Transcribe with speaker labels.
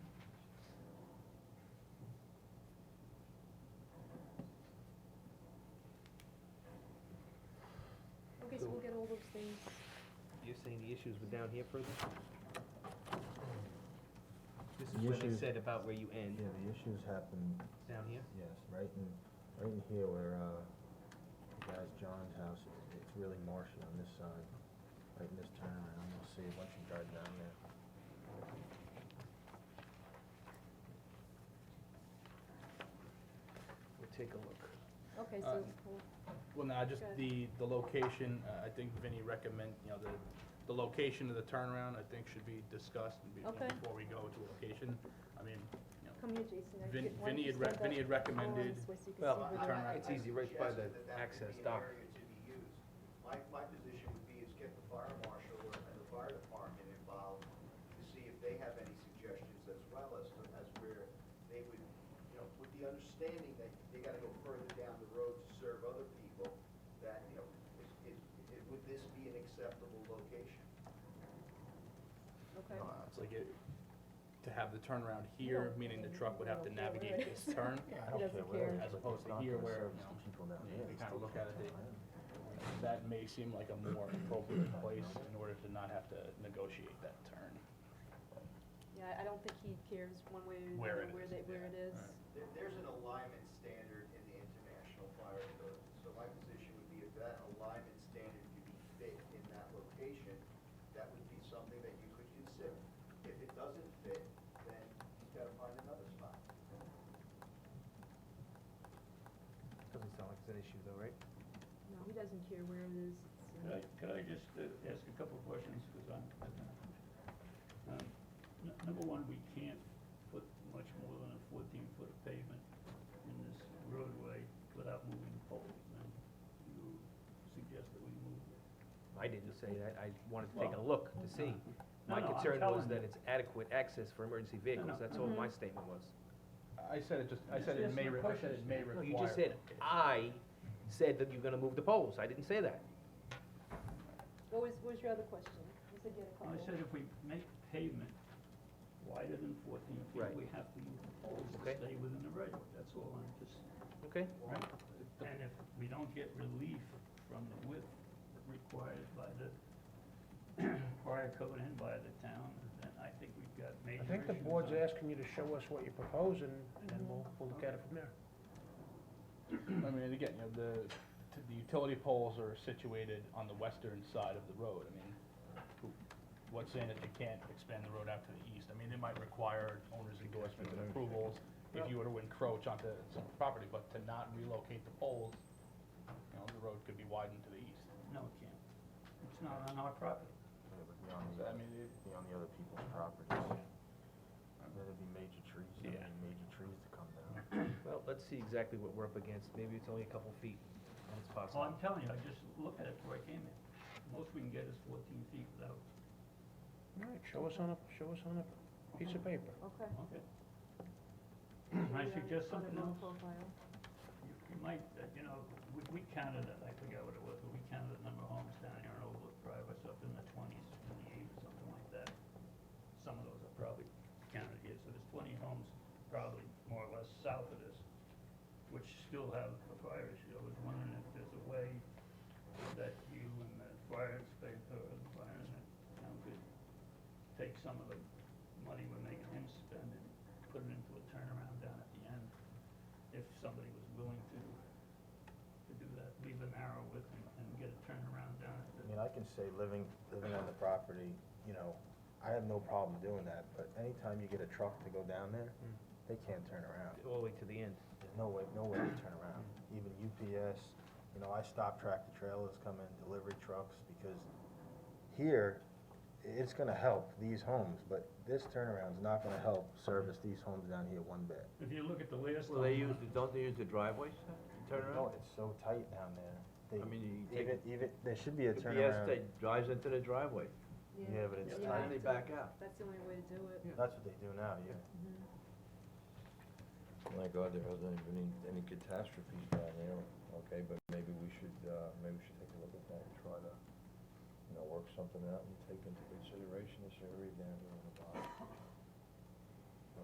Speaker 1: thing?
Speaker 2: You're saying the issues were down here further? This is
Speaker 3: The
Speaker 2: where they
Speaker 3: issues-
Speaker 2: said about where you end,
Speaker 3: Yeah, the issues happened,
Speaker 2: down here?
Speaker 3: yes, right in, right in here where, uh, the guy's John's house, it- it's really marshy on this side, right in this turnaround, I'm gonna see once you drive down there.
Speaker 2: We'll take a look.
Speaker 1: Okay,
Speaker 4: Uh,
Speaker 1: so, we'll-
Speaker 4: Well, no, just
Speaker 1: Good.
Speaker 4: the, the location, uh, I think Vinnie recommend, you know, the, the location of the turnaround, I think should be discussed and be- you know,
Speaker 1: Okay.
Speaker 4: before we go to a location. I mean, you know,
Speaker 1: come here, Jason. I
Speaker 4: Vin-
Speaker 1: did- why don't
Speaker 4: Vinnie
Speaker 1: you
Speaker 4: had, rec-
Speaker 1: stand
Speaker 4: Vinnie
Speaker 1: up? I
Speaker 4: had
Speaker 1: want
Speaker 4: recommended,
Speaker 1: this way so you can
Speaker 2: Well,
Speaker 1: see where
Speaker 4: I-
Speaker 1: the-
Speaker 4: turn around.
Speaker 2: It's easy right by the
Speaker 5: suggested that that
Speaker 2: access
Speaker 5: could be an
Speaker 2: dock.
Speaker 5: area to be used. My, my position would be is get the fire marshal or- and the fire department involved to see if they have any suggestions as well as, to- as where they would, you know, with the understanding that they gotta go further down the road to serve other people, that, you know, is, is, is- would this be an acceptable location?
Speaker 1: Okay,
Speaker 4: uh, it's like it, to have the turnaround here,
Speaker 1: don't-
Speaker 4: meaning the truck would have to
Speaker 1: you don't care where
Speaker 4: navigate
Speaker 1: it
Speaker 4: this turn.
Speaker 3: Yeah,
Speaker 1: He doesn't care.
Speaker 4: As opposed to here where, you know,
Speaker 3: People down
Speaker 4: they-
Speaker 3: there.
Speaker 4: they
Speaker 3: it's
Speaker 4: kinda
Speaker 3: still
Speaker 4: look at it, they-
Speaker 3: turnaround.
Speaker 4: That may seem like a more appropriate place in order to not have to negotiate that turn.
Speaker 1: yeah, I don't think he cares one way or the
Speaker 4: Where
Speaker 1: other
Speaker 4: it
Speaker 1: where
Speaker 4: is,
Speaker 1: they, where
Speaker 4: yeah.
Speaker 1: it is.
Speaker 4: Alright.
Speaker 5: There, there's an alignment standard in the international fire code, so my position would be if that alignment standard could be fit in that location, that would be something that you could consider. If it doesn't fit, then you've gotta find another spot.
Speaker 2: Doesn't sound like it's an issue though, right?
Speaker 1: No, he doesn't care where it is. so-
Speaker 6: Could I, could I just uh, ask a couple of questions, because I'm, um, n- number one, we can't put much more than a fourteen foot of pavement in this roadway without moving the poles, and you suggest that we move it.
Speaker 2: I didn't say that, I wanted to take a
Speaker 6: Well,
Speaker 2: look to see.
Speaker 6: No,
Speaker 2: My
Speaker 6: no, I'm
Speaker 2: concern was
Speaker 6: telling
Speaker 2: that
Speaker 6: you.
Speaker 2: it's adequate access for emergency vehicles,
Speaker 6: no.
Speaker 2: that's all
Speaker 7: Mm-hmm.
Speaker 2: my statement was.
Speaker 4: I said it just, I
Speaker 6: Just
Speaker 4: said it
Speaker 6: ask
Speaker 4: may,
Speaker 6: me
Speaker 4: re- I said it
Speaker 6: questions.
Speaker 4: may
Speaker 2: No,
Speaker 4: require.
Speaker 2: you just said, I said that you're gonna move the poles, I didn't say that.
Speaker 1: What was, what was your other question? You said you had a couple.
Speaker 6: I said if we make pavement wider than fourteen
Speaker 2: Right.
Speaker 6: feet, we have to move the poles to
Speaker 2: Okay.
Speaker 6: stay within the roadway, that's all I'm just,
Speaker 2: Okay,
Speaker 6: right? And if we don't get relief from the width required by the prior code and by the town, then I think we've got major
Speaker 8: I think the
Speaker 6: issues
Speaker 8: board's
Speaker 6: on-
Speaker 8: asking you to show us what you're proposing, and then we'll, we'll look at it from there.
Speaker 4: I mean, and again, you know, the, t- the utility poles are situated on the western side of the road, I mean, who- what's saying that you can't expand the road out to the east? I mean, it might require owner's endorsement and approvals if you were to encroach onto some property, but to not relocate the poles, you know, the road could be widened to the east.
Speaker 6: No, it can't. It's not on our property.
Speaker 3: It would be on
Speaker 4: So,
Speaker 3: the,
Speaker 4: I mean, it-
Speaker 3: be on the other people's properties. There'd be major trees, I
Speaker 4: Yeah.
Speaker 3: mean, major trees to come down.
Speaker 2: well, let's see exactly what we're up against, maybe it's only a couple feet, and it's
Speaker 6: Well,
Speaker 2: possible.
Speaker 6: I'm telling you, I just looked at it before I came in. Most we can get is fourteen feet without,
Speaker 8: All right, show us on a, show us on a piece of paper.
Speaker 1: Okay.
Speaker 6: okay?
Speaker 1: Should
Speaker 6: I
Speaker 1: we, uh,
Speaker 6: suggest
Speaker 1: put it
Speaker 6: something
Speaker 1: on
Speaker 6: else?
Speaker 1: profile?
Speaker 6: You you might, uh, you know, we, we counted it, I forget what it was, but we counted the number of homes down here on Overlook Drive, it's up in the twenties, twenty-eight or something like that. Some of those are probably counted here, so there's twenty homes probably more or less south of this, which still have a fire issue. I was wondering if there's a way that you and the fire inspector or the fire and the town could take some of the money we're making him spend and put it into a turnaround down at the end if somebody was willing to, to do that, leave an arrow with and, and get a turnaround down at
Speaker 3: I
Speaker 6: the,
Speaker 3: mean, I can say living, living on the property, you know, I have no problem doing that, but anytime you get a truck to go down there,
Speaker 7: Mm.
Speaker 3: they can't turn around.
Speaker 2: All the way to the end.
Speaker 3: There's no way, no way to turn around.
Speaker 7: Mm.
Speaker 3: Even UPS, you know, I stop tractor trailers coming, delivery trucks, because here, it's gonna help these homes, but this turnaround's not gonna help service these homes down here one bit.
Speaker 6: if you look at the latest.
Speaker 7: Well, they use,
Speaker 6: on, uh,
Speaker 7: the don't they use the driveways to turn
Speaker 3: No,
Speaker 7: around?
Speaker 3: it's so tight down there.
Speaker 7: I
Speaker 3: They-
Speaker 7: mean, you take
Speaker 3: Even,
Speaker 7: it,
Speaker 3: even, there should be a
Speaker 7: the BS
Speaker 3: turnaround.
Speaker 7: that drives into the driveway,
Speaker 3: Yeah, but it's
Speaker 1: You
Speaker 3: tight.
Speaker 1: have
Speaker 7: and they
Speaker 1: to-
Speaker 7: back out.
Speaker 1: That's the only way to do it.
Speaker 3: That's what they do now, yeah.
Speaker 9: My God, there hasn't been any, any catastrophes down there, okay, but maybe we should, uh, maybe we should take a look at that and try to, you know, work something out and take into consideration this area down here on the bottom.